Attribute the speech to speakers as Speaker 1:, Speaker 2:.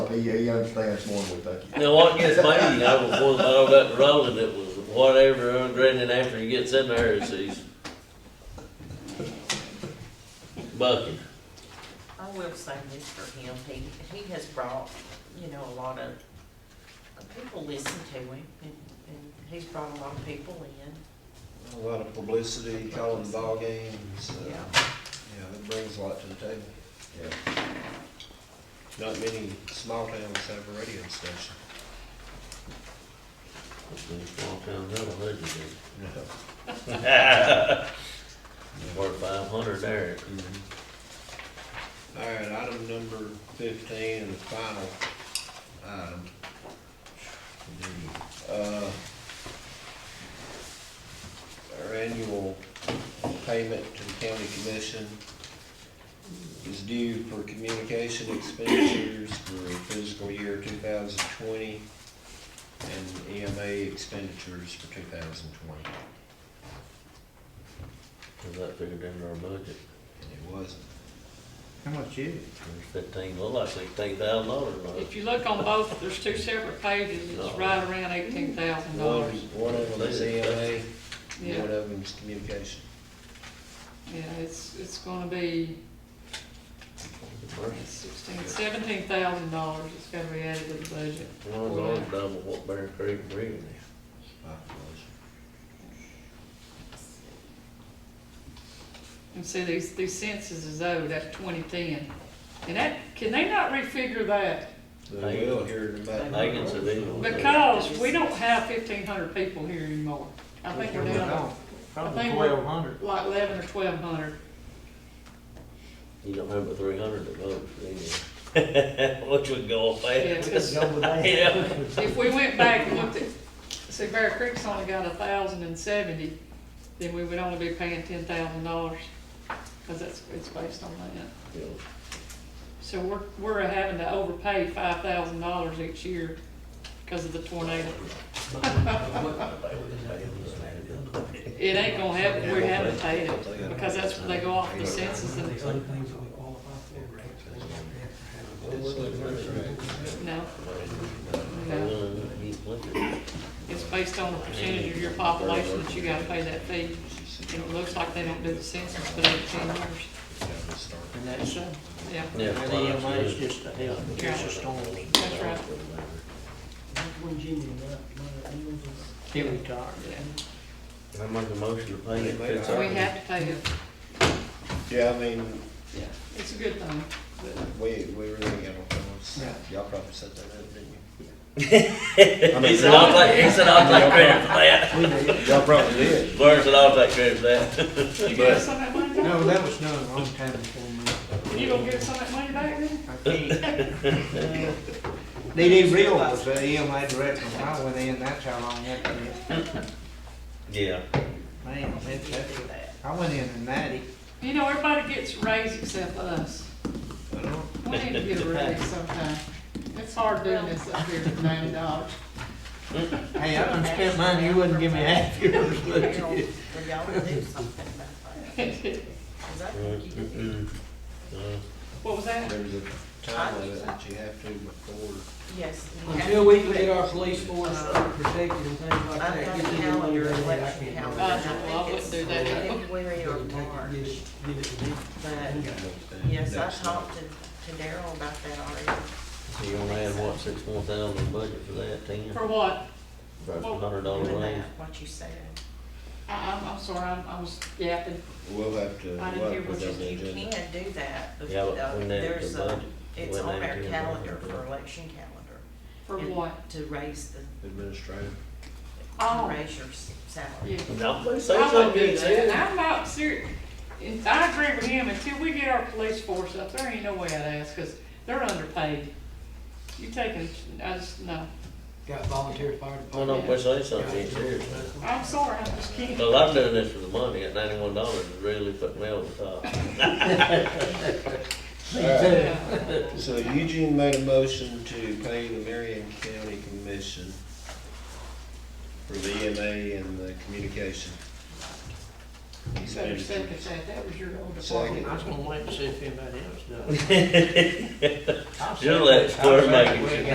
Speaker 1: he, he understands more than we think. he-
Speaker 2: Now, what gets me, I was one, I got the rolling, it was whatever, Brendan, after he gets in there, it's he's bucking.
Speaker 3: I will say this for him, he, he has brought, you know, a lot of, uh, people listen to him, and, and he's brought a lot of people in.
Speaker 4: A lot of publicity, calling ball games. uh,
Speaker 3: Yeah.
Speaker 4: Yeah, that brings a lot to the table.
Speaker 1: Yeah.
Speaker 4: Not many small towns have a radio station.
Speaker 2: Small town, have a hundred of them.
Speaker 4: No.
Speaker 2: Worth five hundred there.
Speaker 4: All right, item number fifteen, and the final item. The, uh, Our annual payment to the county commission is due for communication expenditures for fiscal year two thousand twenty and EMA expenditures for two thousand twenty,
Speaker 2: Is that figured into our budget?
Speaker 4: and it wasn't.
Speaker 5: How much is it?
Speaker 2: There's Fifteen, look like sixteen thousand dollars.
Speaker 6: If you look on both, there's two separate pages, it's right around eighteen thousand
Speaker 4: One,
Speaker 6: dollars.
Speaker 4: one of them is EMA, and
Speaker 6: Yeah,
Speaker 4: one of them is communication.
Speaker 6: yeah, it's, it's gonna be sixteen, seventeen thousand dollars it's gonna be added to the budget.
Speaker 2: Well, it's already double what Bear Creek bringing us.
Speaker 4: My apologies.
Speaker 6: And see, these, these census is owed, that's twenty-ten. And that, can they not refigure that?
Speaker 4: They will here in about.
Speaker 2: Megan said they don't.
Speaker 6: Because we don't have fifteen hundred people here anymore. I think we're down I
Speaker 5: Probably
Speaker 6: think we're-
Speaker 5: twelve hundred.
Speaker 6: to like eleven or twelve hundred.
Speaker 2: You don't have but three hundred to vote, do you? Which would go up fast.
Speaker 5: Go with that.
Speaker 2: Yeah.
Speaker 6: If we went back and looked at, see, Bear Creek's only got a thousand and seventy, then we would only be paying ten thousand dollars, because that's, it's based on that. So we're, we're having to overpay five thousand dollars each year because of the tornado. It ain't gonna happen, we're having to pay it, because that's what they go off the census and,
Speaker 7: The other things that we qualify for, actually, we have
Speaker 6: no, no. It's based on the percentage of your population that you gotta pay that fee. And it looks like they don't do the census for eight, ten years.
Speaker 5: And that's,
Speaker 6: So, yeah,
Speaker 2: Yeah.
Speaker 5: that EMA is just a help, it's a storm.
Speaker 6: that's right.
Speaker 7: to have. When Jimmy, that, my meals is-
Speaker 5: He retired.
Speaker 6: Yeah.
Speaker 2: I make a motion to pay it. It's
Speaker 6: So we
Speaker 2: already-
Speaker 6: have to pay it.
Speaker 4: Yeah, I mean,
Speaker 6: Yeah. It's a good thing.
Speaker 4: we, we really got on those.
Speaker 5: Yeah.
Speaker 4: Y'all probably set that up, didn't
Speaker 2: He said, I'll take, he said, I'll take credit for that.
Speaker 5: We did.
Speaker 4: you? Y'all probably did.
Speaker 2: Burns said, I'll take credit for that.
Speaker 6: You give us some of that money
Speaker 5: No,
Speaker 6: back?
Speaker 5: that was done a long time before me.
Speaker 6: You gonna give us some of that money back then?
Speaker 5: I can't. Uh, DD Real was the EMA director when I went in, that's how long that was.
Speaker 2: Yeah.
Speaker 5: Man, that's, that's,
Speaker 3: Do that.
Speaker 5: I went in in ninety.
Speaker 6: You know, everybody gets raised except us.
Speaker 4: I know.
Speaker 6: We need to get a raise sometime. It's hard doing this up here for ninety dollars.
Speaker 5: Hey, I done spent money, you wouldn't give me half yours, would
Speaker 3: Harold,
Speaker 5: you?
Speaker 3: we gotta do something about that, cause I think you did.
Speaker 6: What was that?
Speaker 4: There's a time limit that you have to before.
Speaker 3: Yes. you have
Speaker 7: Until we
Speaker 3: to
Speaker 7: can get our
Speaker 3: do
Speaker 7: police force protected and things like
Speaker 3: I've
Speaker 7: that.
Speaker 3: got
Speaker 7: get
Speaker 3: a
Speaker 7: them in
Speaker 3: calendar,
Speaker 7: there, I
Speaker 3: election
Speaker 7: can't-
Speaker 3: calendar,
Speaker 6: Uh,
Speaker 3: I
Speaker 6: well, I
Speaker 3: think it's
Speaker 6: wouldn't do that.
Speaker 3: February or
Speaker 7: Take it,
Speaker 3: March,
Speaker 7: Get it, get it to me.
Speaker 3: but, yes, I talked to, to Daryl about that already.
Speaker 2: So you only had what, six more thousand budget for that, ten,
Speaker 6: For what?
Speaker 2: for a hundred dollar
Speaker 3: Doing
Speaker 2: raise?
Speaker 3: that, What you said,
Speaker 6: I, I'm, I'm sorry, I'm, I was yapping.
Speaker 4: We'll have to, we'll
Speaker 6: I
Speaker 4: have
Speaker 6: didn't
Speaker 4: to
Speaker 6: hear
Speaker 4: put
Speaker 6: what
Speaker 4: that on the
Speaker 3: you
Speaker 4: agenda.
Speaker 3: can do that, but
Speaker 2: Yeah, but
Speaker 3: uh,
Speaker 2: when they,
Speaker 3: there's
Speaker 2: the
Speaker 3: a,
Speaker 2: budget,
Speaker 3: it's
Speaker 2: when
Speaker 3: on
Speaker 2: they
Speaker 3: our
Speaker 2: do the
Speaker 3: calendar
Speaker 2: budget.
Speaker 3: for election calendar.
Speaker 6: For
Speaker 3: and
Speaker 6: what?
Speaker 3: To raise the,
Speaker 4: Administrative.
Speaker 6: Oh.
Speaker 3: to raise your s- salary.
Speaker 6: Yeah.
Speaker 2: Now, please say
Speaker 6: I wouldn't
Speaker 2: something.
Speaker 6: do that. And I'm not serious. And I agree with him. Until we get our police force up, there ain't no way I'd ask, cause they're underpaid. You taking, I just, no.
Speaker 7: Got volunteer fire
Speaker 2: Why
Speaker 7: department.
Speaker 2: don't we say something, seriously?
Speaker 6: I'm sorry, I'm just kidding.
Speaker 2: Well, I'm doing this for the money, at ninety-one dollars, it really put me over the top.
Speaker 6: Yeah.
Speaker 4: So Eugene made a motion to pay the Marion County Commission E for the EMA and the communication.
Speaker 6: You said your second that, that was your own
Speaker 4: Second.
Speaker 6: department.
Speaker 5: I was gonna wait and see if anybody else does.
Speaker 2: You're
Speaker 5: I'll
Speaker 2: letting
Speaker 5: second it. I'll
Speaker 2: Square make
Speaker 5: second
Speaker 2: it.
Speaker 5: it.